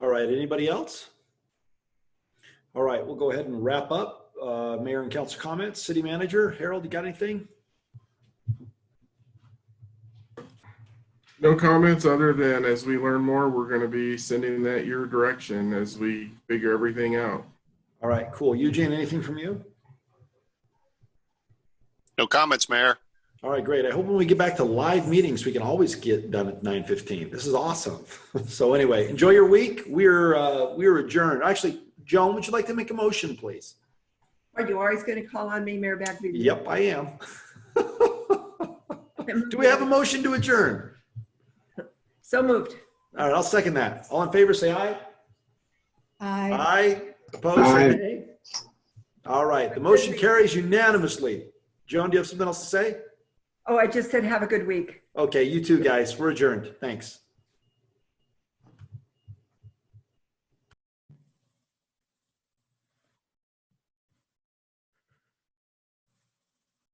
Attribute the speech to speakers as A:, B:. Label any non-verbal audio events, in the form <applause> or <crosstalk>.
A: right, anybody else? All right, we'll go ahead and wrap up. Uh, Mayor and council comments, city manager, Harold, you got anything?
B: No comments other than as we learn more, we're going to be sending that your direction as we figure everything out.
A: All right, cool. Eugene, anything from you?
C: No comments, Mayor.
A: All right, great. I hope when we get back to live meetings, we can always get done at nine fifteen. This is awesome. <laughs> So anyway, enjoy your week. We're uh, we're adjourned. Actually, Joan, would you like to make a motion, please?
D: Are you always going to call on me, Mayor Bagby?
A: Yep, I am. <laughs> Do we have a motion to adjourn?
D: So moved.
A: All right, I'll second that. All in favor, say aye.
D: Uh,
E: Aye.
A: Aye. Opposed, say nay. All right, the motion carries unanimously. Joan, do you have something else to say?
D: Oh, I just said have a good week.
A: Okay, you too, guys. We're adjourned. Thanks.